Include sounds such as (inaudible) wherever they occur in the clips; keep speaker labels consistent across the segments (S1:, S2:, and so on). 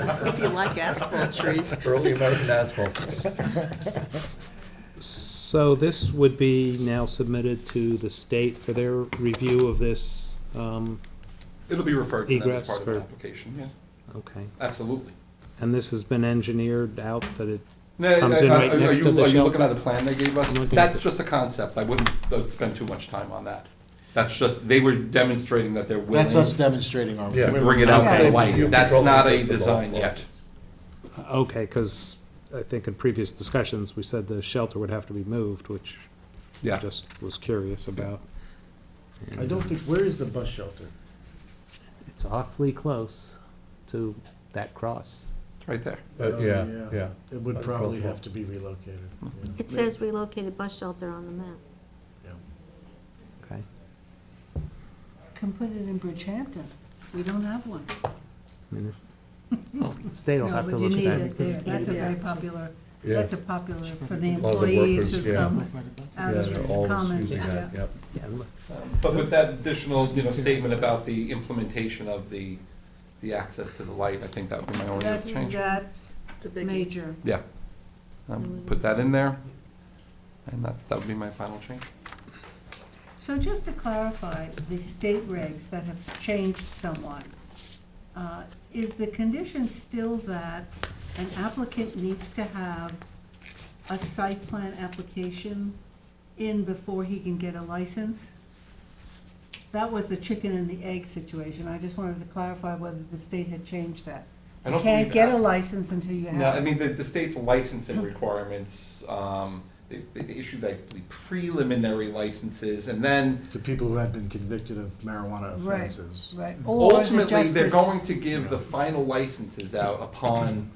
S1: If you like asphalt
S2: (laughs)
S1: trees.
S3: Early American asphalt.
S4: So this would be now submitted to the state for their review of this, um,
S5: It'll be referred to them as
S4: Egress
S5: part of the
S4: for-
S5: application, yeah,
S4: okay.
S5: absolutely.
S4: And this has been engineered out that it,
S5: No,
S4: Comes in
S5: I- I-
S4: right
S5: are
S4: next
S5: you-
S4: to the
S5: Are you
S4: shelter.
S5: looking at a plan they gave us?
S4: I'm looking at
S5: That's
S4: the-
S5: just a concept, I wouldn't uh, spend too much time on that. That's just, they were demonstrating that they're willing
S6: That's us
S5: to
S6: demonstrating our.
S3: Yeah.
S5: bring it out to
S1: Okay.
S5: the light. That's
S3: Control
S5: not a
S3: the- the
S5: design
S3: law.
S5: yet.
S4: okay, because I think in previous discussions, we said the shelter would have to be moved, which I
S5: Yeah.
S4: just was curious about.
S6: I don't think, where is the bus shelter?
S7: It's awfully close to that cross.
S5: It's right there.
S3: But yeah, yeah.
S6: Oh, It would
S3: That's
S6: probably
S3: possible.
S6: have to be relocated. yeah.
S8: It says relocated bus shelter on the map.
S6: Yeah.
S4: Okay.
S2: Can put it in Bridgehampton. We don't have one.
S4: I
S2: (laughs)
S4: mean,
S7: The State will
S2: No,
S7: have to
S2: but you
S7: look
S2: need
S7: at
S2: it
S7: that.
S2: there. That's a very popular,
S3: Yeah.
S2: that's a popular for the
S3: Lot of the
S2: employees who
S3: workers, yeah.
S2: come out
S3: Yeah,
S2: of
S3: they're
S2: the
S3: always
S2: commons,
S3: using
S2: yeah.
S3: that, yep.
S4: yeah, look,
S5: But with that additional, you know, statement about the implementation of the, the access to the light, I think that would be my only
S2: That's,
S5: other change.
S2: that's
S1: It's a biggie.
S2: major.
S5: Yeah. Um, Put that in there, and that, that would be my final change.
S2: So just to clarify, the state regs that have changed somewhat, uh, is the condition still that an applicant needs to have a site plan application in before he can get a license? That was the chicken and the egg situation. I just wanted to clarify whether the state had changed that.
S5: I
S2: You
S5: don't
S2: can't
S5: believe
S2: get
S5: that.
S2: a license until you have.
S5: No, I mean, the, the state's licensing requirements, um, they, they issue like the preliminary licenses, and then
S6: To people who have been convicted of marijuana
S2: Right,
S6: offenses.
S2: Right. Or the
S5: ultimately, they're
S2: justice-
S5: going to give the final licenses out upon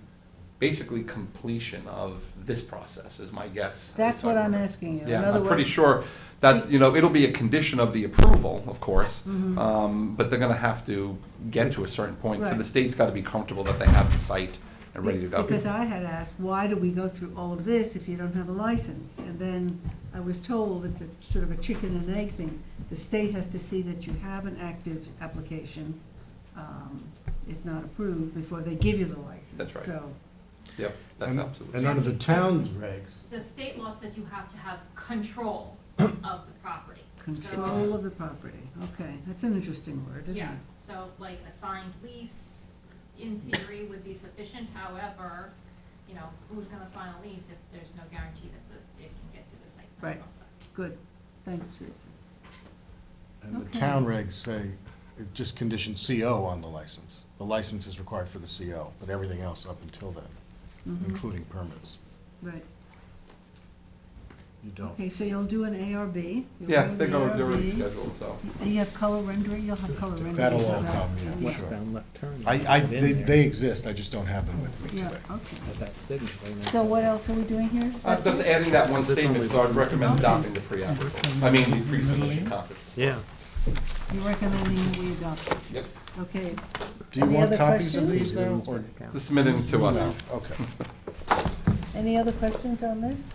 S5: basically completion of this process, is my guess.
S2: That's what I'm asking you. In
S5: Yeah,
S2: other
S5: I'm pretty
S2: words-
S5: sure that, you know, it'll be a condition of the approval, of course,
S2: Mm-hmm.
S5: um, but they're gonna have to get to a certain point, for the
S2: Right.
S5: state's gotta be comfortable that they have the site and ready to go.
S2: Because uh, I had asked, why do we go through all of this if you don't have a license? And then I was told it's a sort of a chicken and egg thing. The state has to see that you have an active application, um, if not approved, before they give you the license.
S5: That's right.
S2: So,
S5: Yep, that's
S6: And
S5: absolutely.
S6: and under the town's regs,
S9: The state law says you have to have
S5: (coughs)
S9: control of the property.
S2: control of the property, okay, that's an interesting word,
S9: So,
S2: isn't it?
S9: Yeah, so like a signed lease in theory would be sufficient, however, you know, who's gonna sign a lease if there's no guarantee that the, it can get through the site plan
S2: Right.
S9: process?
S2: Good, thanks, Teresa.
S6: and the
S2: Okay.
S6: town regs say, it just condition CO on the license. The license is required for the CO, but everything else up until then,
S2: Mm-hmm.
S6: including permits.
S2: Right,
S6: You don't.
S2: okay, so you'll do an ARB. You'll do
S5: Yeah,
S2: an
S5: they're going, they're already
S2: ARB.
S5: scheduled, so.
S2: And you have color rendering, you'll have color rendering.
S6: That'll all come, yeah, sure.
S4: westbound left turn.
S6: I, I,
S4: Put in
S6: they,
S4: there.
S6: they exist, I just don't have them with me
S2: Yeah,
S6: today.
S2: okay.
S4: At that signal, they might-
S2: So what else are we doing here?
S5: Uh,
S2: That's
S5: Just
S2: it?
S5: adding that one statement, so I'd recommend adopting the pre-app report. I mean, the pre-submission conference.
S4: Yeah.
S2: You're recommending we adopt it,
S5: Yep,
S2: okay.
S6: Do you
S2: Any
S6: want
S2: other
S6: copies of
S2: questions?
S6: these now, or?
S5: to submit them to us.
S6: Okay.
S2: Any other questions on this?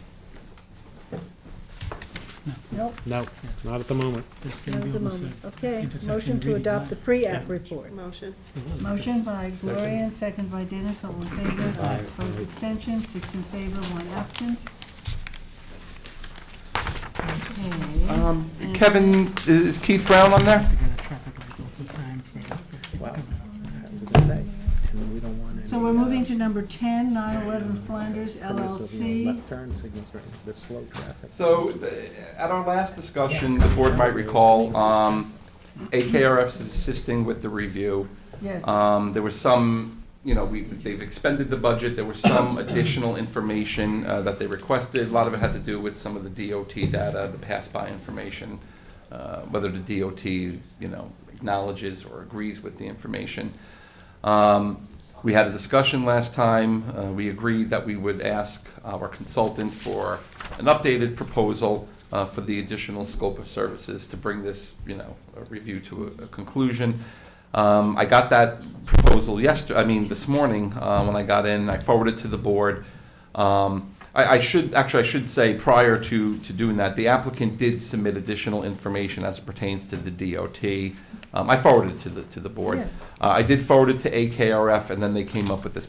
S2: Nope,
S4: No, not at the moment.
S2: not at the moment, okay. Motion to adopt the pre-app report.
S1: Motion.
S2: Motion by Gloria and second by Dennis, all in favor. Opposed, abstention, six in favor, one absent. Okay,
S5: Um, Kevin, is Keith Brown on there?
S4: And we don't want any.
S2: so we're moving to
S4: uh,
S2: number ten, 911 Flanders LLC.
S4: Left turn signals, right, the slow traffic.
S5: So, the- at our last discussion, the board might recall, um, AKRF is assisting with the review.
S2: Yes.
S5: Um, there was some, you know, we, they've expended the budget, there was some additional information, uh, that they requested. A lot of it had to do with some of the DOT data, the pass-by information, uh, whether the DOT, you know, acknowledges or agrees with the information. Um, we had a discussion last time, uh, we agreed that we would ask our consultant for an updated proposal, uh, for the additional scope of services to bring this, you know, uh, review to a- a conclusion. Um, I got that proposal yesterday, I mean, this morning, uh, when I got in, I forwarded to the board. Um, I, I should, actually, I should say, prior to, to doing that, the applicant did submit additional information as it pertains to the DOT. Um, I forwarded it to the, to the board.
S2: Yeah.
S5: Uh, I did forward it to AKRF, and then they came up with this